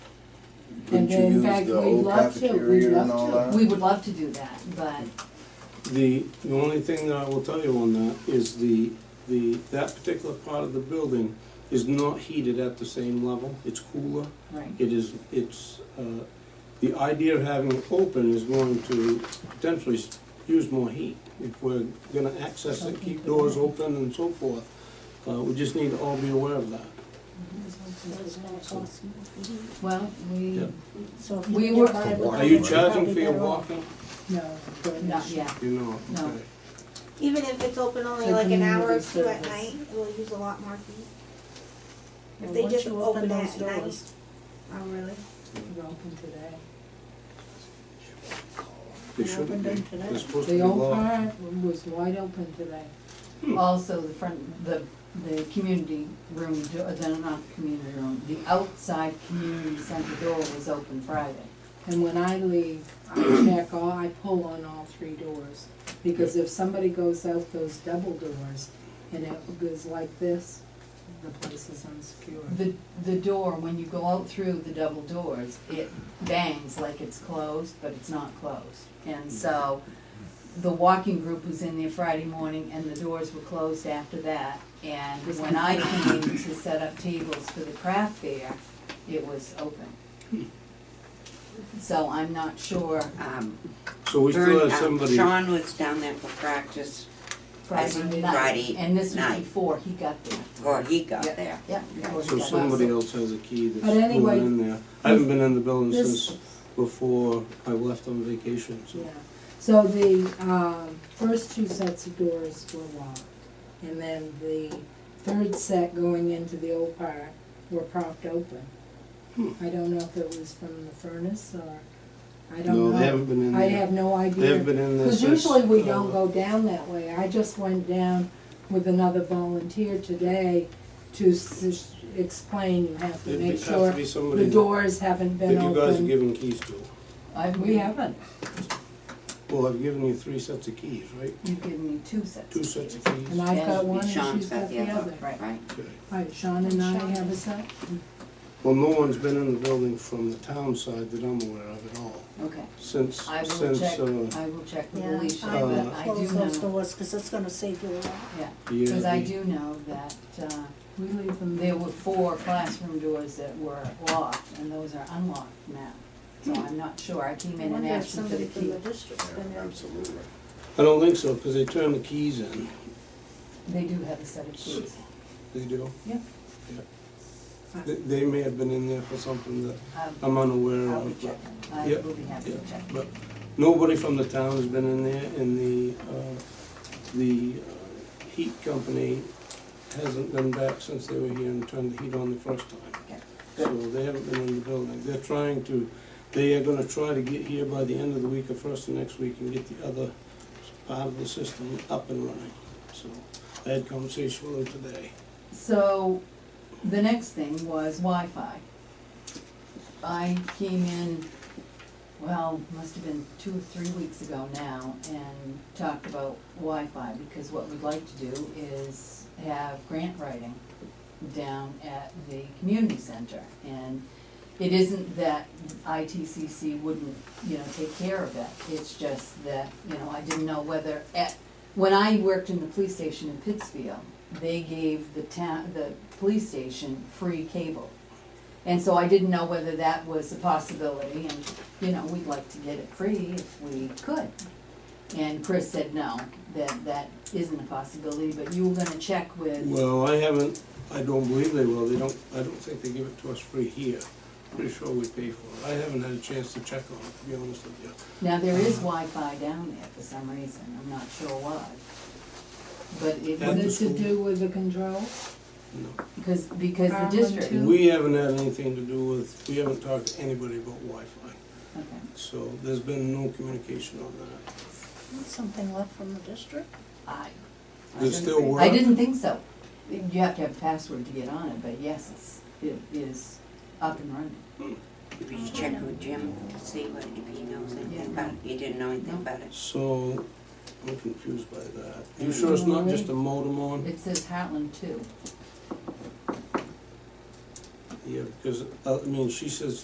Couldn't And you then, in use fact, the we'd old love to, we'd cafeteria and all love to, that? we would love to do that, but The, the only thing that I will tell you on that is the, the, that particular part of the building is not heated at the same level, it's cooler. Right, It is, it's, uh, the idea of having it open is going to potentially s- use more heat. If we're gonna access it, keep doors open and so forth, uh, we just need to all be aware of that. well, we, Yeah. So if We you were- buy a Are Are you book, charging probably for your better off- walking? No. but- not yet, You know, No. okay. Even if it's open only For like an hour or community two at service. night, we'll use a lot more heat. Well, If they once just you open those that at night. doors, Oh, really? You're open today. They shouldn't opened be, them today. they're supposed to the be old locked. part Was wide open today. Hmm. Also, the front, the, the community room, do- uh, no, not the community room, the outside community center door was open Friday. And when I leave, I check all, I pull on all three doors. Because if somebody goes out those double doors and it goes like this, the place is unsecure. The, the door, when you go out through the double doors, it bangs like it's closed, but it's not closed. And so, the walking group was in there Friday morning and the doors were closed after that. And when I came to set up tables for the craft fair, it was open. So I'm not sure Um, So we still Vern- have um, somebody. Sean was down there for practice, Friday Friday night. night. And this was Night. before he got there. or he got Yeah. there. Yeah. before he So got somebody there. else has a key that's But anyway, going in there. I haven't been in the building this- since before I left on vacation, so. Yeah, so the, um, first two sets of doors were locked, and then the third set going into the old part were propped open. I don't know if it was from the furnace or, I don't know. No, they haven't been in I there. have no idea. They haven't been in there Cause since. usually we uh, don't go down that way, I just went down with another volunteer today to s- explain, you have to It'd make be- have sure to be somebody the doors haven't that been you guys are opened. giving keys to. I, We haven't, Well, I've given you three sets of keys, right? You've given me two sets. Two sets of keys. and I've got And Uh, one and Sean's she's got the other. Right. Right. Okay. Right, Sean and I have a set. Well, no one's been in the building from the town side that I'm aware of at all, Okay, since, I will since, check, uh, I will check with Yeah, Alicia, I would but I do Close those know, doors, cause it's gonna save you a lot. yeah, yeah. cause I the- do know that, uh, We leave them there there. were four classroom doors that were locked, and those are unlocked now. So I'm not sure, I came Hmm. I in and wonder if asked them for somebody the from key, the district's been there. Absolutely. I don't think so, because they turn the keys in. they do have a set of keys, They do? Yeah. Yeah. They, they may have been in there for something that um, I'm unaware I'll be of, but, checking, I Yeah, will be happy to yeah, check. but nobody from the town has been in there, and the, uh, the uh, heat company hasn't been back since they were here and turned the heat on the first Okay. time. So they haven't been in the building. They're trying to, they are gonna try to get here by the end of the week or first of next week and get the other part of the system up and running. So I had conversation with them today. So, the next thing was Wi-Fi. I came in, well, must have been two or three weeks ago now, and talked about Wi-Fi because what we'd like to do is have grant writing down at the community center. And it isn't that ITCC wouldn't, you know, take care of it, it's just that, you know, I didn't know whether at, when I worked in the police station in Pittsfield, they gave the town, the police station free cable. And so I didn't know whether that was a possibility, and, you know, we'd like to get it free if we could. And Chris said, no, that, that isn't a possibility, but you were gonna check with, Well, I haven't, I don't believe they will, they don't, I don't think they give it to us free here. Pretty sure we pay for it. I haven't had a chance to check on it, to be honest with you. now there is Wi-Fi down there for some reason, I'm not sure why. But it At the was, Is it to do with the control? No. because, because the Um, district, two- We haven't had anything to do with, we haven't talked to anybody about Wi-Fi, okay, so there's been no communication on that. Something left from the district? I, I Does it didn't still think- work? I didn't think so. You have to have a password to get on it, but yes, it's, it is up and running. Did you check with Jim, see what, if he knows Yeah. anything about it? He didn't know anything about it. So, I'm confused by that. You sure it's not just a modem on? It says Heartland two. Yeah, because, uh, I mean, she says